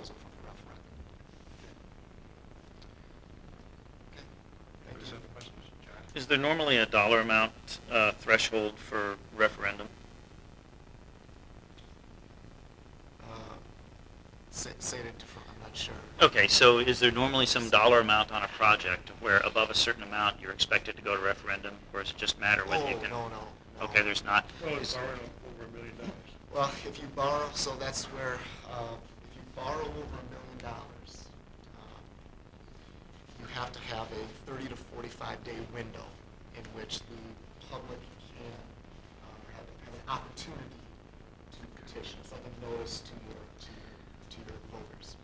was a fucking rough run. Okay. Thank Any you. other questions, John? Is there normally a dollar amount uh, threshold for referendum? Uh, Say, say it in different, I'm not sure. Okay, so is there normally some dollar amount on a project where above a certain amount you're expected to go to referendum, or is it just matter whether you Oh, can? no, no, no. Okay, there's not. Well, it's Is- borrowing over a million dollars. Well, if you borrow, so that's where, uh, if you borrow over a million dollars, um, you have to have a thirty to forty-five day window in which the public can, uh, have, have an opportunity to petition. It's like a notice to your, to your, to your voters.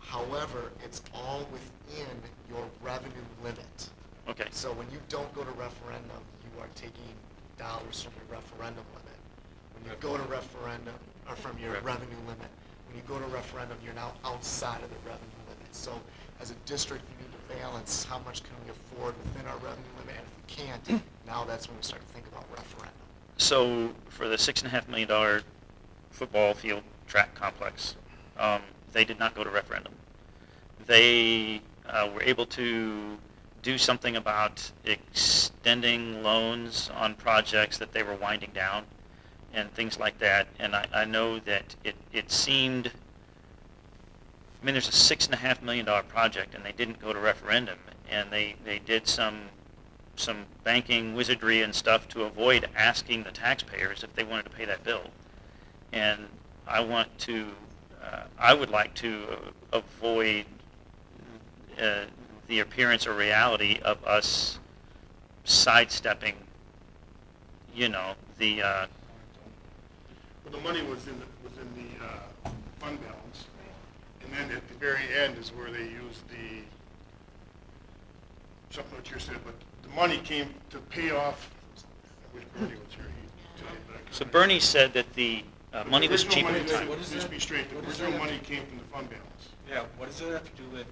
However, it's all within your revenue limit. Okay, So when you don't go to referendum, you are taking dollars from your referendum limit. When you go to referendum, or from your Revenue. revenue limit, when you go to referendum, you're now outside of the revenue limit. So as a district, you need to balance how much can we afford within our revenue limit, and if we can't, now that's when we start to think about referendum. so for the six and a half million dollar football field track complex, um, they did not go to referendum. They uh, were able to do something about extending loans on projects that they were winding down and things like that. And I, I know that it, it seemed, I mean, there's a six and a half million dollar project and they didn't go to referendum and they, they did some, some banking wizardry and stuff to avoid asking the taxpayers if they wanted to pay that bill and I want to, uh, I would like to avoid uh, the appearance or reality of us sidestepping, you know, the, uh, Well, the money was in, the was in the uh, fund balance, and then at the very end is where they used the, something what you said, but the money came to pay off, which Bernie was here. he took it back. so Bernie said that the uh, But money was original cheap money- at the time. What is Just that? be straight, the What is original that? money came from the fund balance. Yeah, what does that have to do with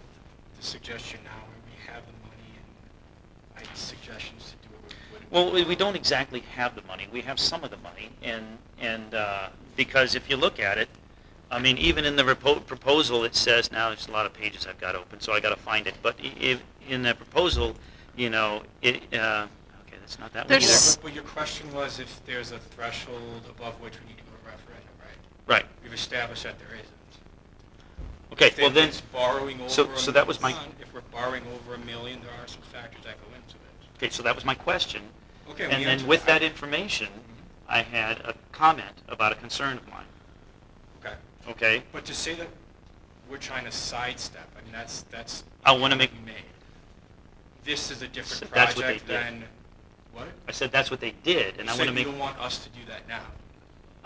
the suggestion now, when we have the money and I suggestions to do it with? what- Well, we we don't exactly have the money. We have some of the money, and, and, uh, because if you look at it, I mean, even in the repo- proposal, it says, now, there's a lot of pages I've got open, so I gotta find it, but i- if, in the proposal, you know, it, uh, okay, that's not that one Yeah, either. There's- but- But your question was if there's a threshold above which we need to go to referendum, right? Right, We've established that there isn't. okay, If well then, it's borrowing over. so- a so that was my- million, If we're borrowing over a million, there are some factors that go into it. okay, so that was my question. Okay, And we then answered with that. that information, I had a comment about a concern of mine, Okay. okay? But to say that we're trying to sidestep, I mean, that's, that's. I wanna make- we made. This is a So different that's what they project did. than, what? I said, that's what they did, and I You wanna said make. You don't want us to do that now.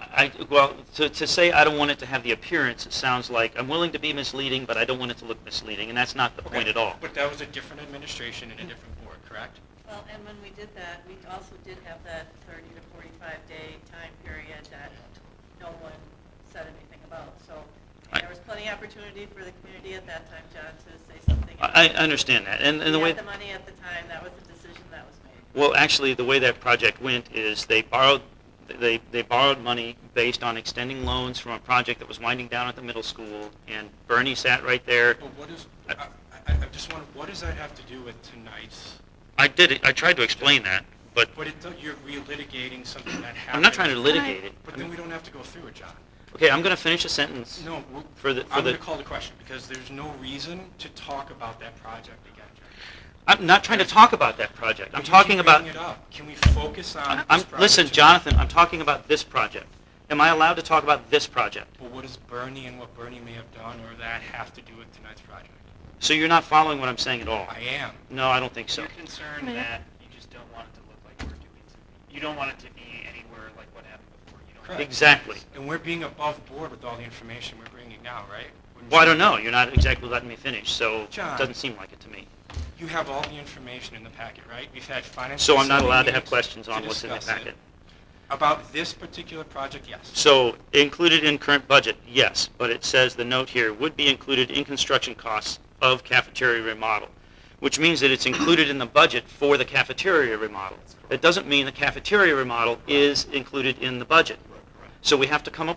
I, well, to, to say I don't want it to have the appearance, it sounds like I'm willing to be misleading, but I don't want it to look misleading, and that's not the point Okay, at all. But that was a different administration and a different board, correct? Well, and when we did that, we also did have that thirty to forty-five day time period that no one said anything about, so Right. there was plenty of opportunity for the community at that time, John, to say something. I, I understand that, and, and the We way, had the money at the time, that was the decision that was made. well, actually, the way that project went is they borrowed, they, they borrowed money based on extending loans from a project that was winding down at the middle school, and Bernie sat right there. But what is, I, I, I just want, what does that have to do with tonight's? I did, it- I tried to explain that, but But it, don't- you're relitigating something that happened. I'm not trying to litigate it. But then we don't have to go through it, John. Okay, I'm gonna finish a sentence. No, we're- For the- for I'm the- going to call the question because there's no reason to talk about that project again, John. I'm not trying to talk about that project, I'm But you keep talking about. bringing it up. Can we focus on this I'm, project listen, tonight? Jonathan, I'm talking about this project. Am I allowed to talk about this project? Well, what is Bernie and what Bernie may have done or that have to do with tonight's project? So you're not following what I'm saying at all? I am. No, I don't think so. You're concerned that you just don't want it to look like we're doing something. You don't want it to be anywhere like what happened before. You don't want it to Exactly. And we're being above board with all the information we're bringing now, right? Well, I don't know. You're not exactly letting me finish, so it John. doesn't seem like it to me. You have all the information in the packet, right? We've had finance. So I'm not facility allowed to have meetings questions to on what's in the discuss it. packet. About this particular project, yes. So included in current budget, yes, but it says the note here would be included in construction costs of cafeteria remodel, which means that it's included in the budget for the cafeteria remodel. That doesn't mean the cafeteria remodel is included in the budget. So we have to come up